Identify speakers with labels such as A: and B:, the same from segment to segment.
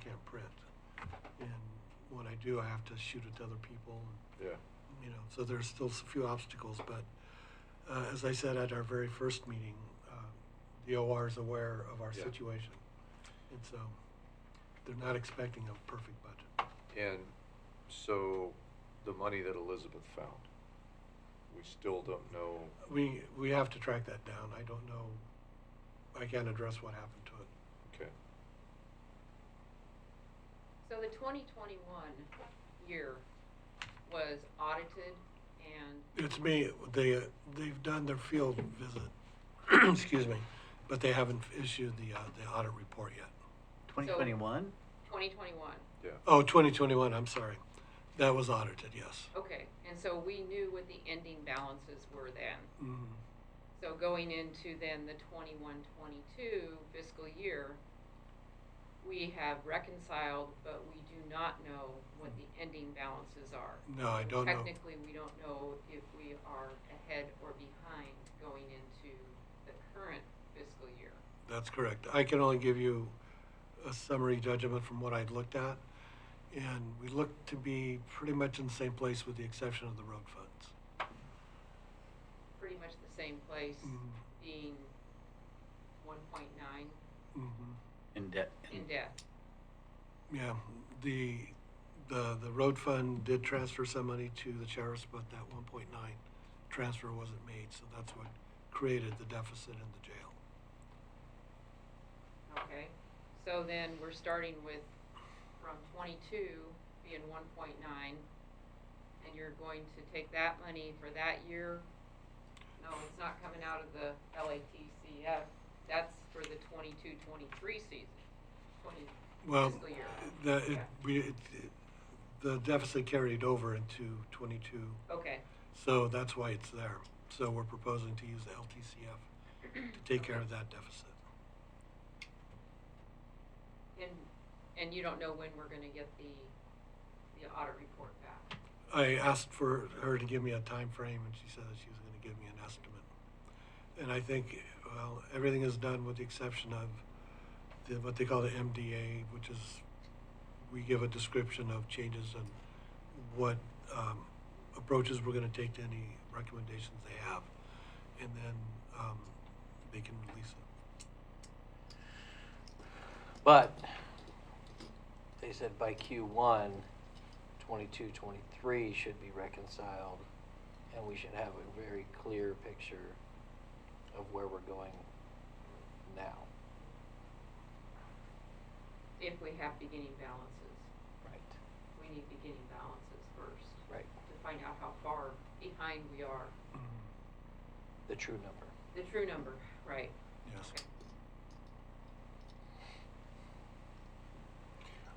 A: can't print. And when I do, I have to shoot at other people,
B: Yeah,
A: you know, so there's still a few obstacles, but uh, as I said at our very first meeting, uh, the OR is aware of our
B: Yeah.
A: situation. And so they're not expecting a perfect budget.
B: and so the money that Elizabeth found, we still don't know.
A: We, we have to track that down. I don't know, I can't address what happened to it.
B: Okay,
C: So the twenty twenty-one year was audited and,
A: It's me, they, they've done their field visit, excuse me, but they haven't issued the, uh, the audit report yet.
D: 2021?
C: twenty twenty-one,
B: yeah.
A: Oh, 2021, I'm sorry. That was audited, yes.
C: okay, and so we knew what the ending balances were then.
A: Mm.
C: So going into then the twenty-one, twenty-two fiscal year, we have reconciled, but we do not know what the ending balances are.
A: No, I don't know.
C: Technically, we don't know if we are ahead or behind going into the current fiscal year.
A: That's correct. I can only give you a summary judgment from what I'd looked at. And we look to be pretty much in the same place with the exception of the road funds.
C: Pretty much the same place,
A: Mhm.
C: being one point nine
A: Mhm.
D: In debt.
C: in debt.
A: Yeah, the, the, the road fund did transfer some money to the sheriff's, but that one point nine transfer wasn't made, so that's what created the deficit in the jail.
C: Okay, so then we're starting with, from twenty-two being one point nine, and you're going to take that money for that year? No, it's not coming out of the LATCF, that's for the 22-23 season, twenty,
A: Well,
C: fiscal year.
A: the, it,
C: Yeah.
A: we, it, it- the deficit carried over into twenty-two,
C: Okay.
A: so that's why it's there. So we're proposing to use the LTCF to take care of that deficit.
C: And, and you don't know when we're gonna get the, the audit report back?
A: I asked for her to give me a time frame, and she said that she was gonna give me an estimate. And I think, well, everything is done with the exception of the, what they call the MDA, which is, we give a description of changes and what, um, approaches we're gonna take to any recommendations they have. And then, um, they can release it.
E: But they said by Q1, 22, 23 should be reconciled, and we should have a very clear picture of where we're going now.
C: If we have beginning balances,
E: Right.
C: we need beginning balances first.
E: Right.
C: To find out how far behind we are,
E: The true number.
C: the true number, right?
A: Yes.
C: Okay.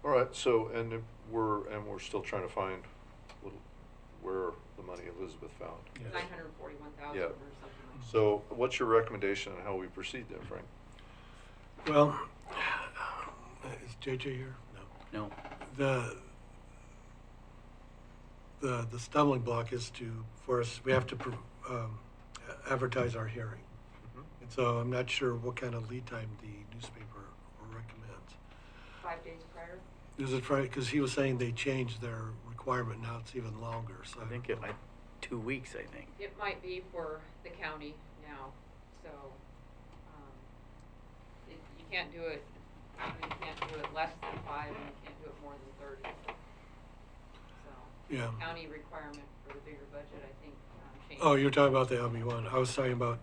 B: All right, so, and if we're, and we're still trying to find little- where the money Elizabeth found.
A: Yes. Mm.
C: Nine hundred and forty-one thousand
B: Yeah.
C: or something like that.
B: So what's your recommendation on how we proceed then, Frank?
A: Well, is JJ here? No.
D: No.
A: the the the stumbling block is to for us we have to pro- um, advertise our hearing and so i'm not sure what kind of lead time the newspaper recommends
C: Five days prior?
A: is it right because he was saying they changed their requirement now it's even longer so
D: I think it, like, two weeks, I think.
C: It might be for the county now, so, um, it, you can't do it, you can't do it less than five, and you can't do it more than thirty. So,
A: Yeah.
C: county requirement for the bigger budget, I think, um, changed.
A: oh you're talking about the lb1 i was talking about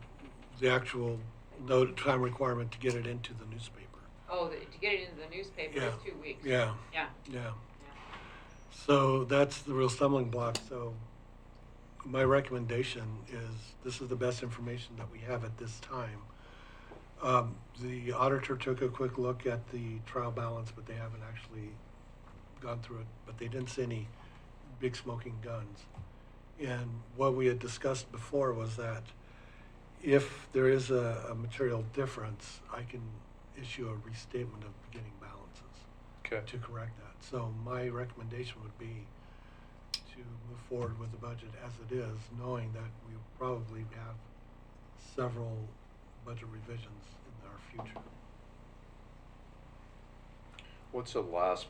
A: the actual no time requirement to get it into the newspaper
C: Oh, the- to get it into the newspaper is
A: Yeah.
C: two weeks.
A: Yeah.
C: Yeah,
A: yeah
C: yeah.
A: So that's the real stumbling block. So my recommendation is this is the best information that we have at this time. Um, the auditor took a quick look at the trial balance, but they haven't actually gone through it, but they didn't see any big smoking guns. And what we had discussed before was that if there is a, a material difference, I can issue a restatement of beginning balances
B: Okay,
A: to correct that. So my recommendation would be to move forward with the budget as it is, knowing that we probably have several budget revisions in our future.
B: What's the last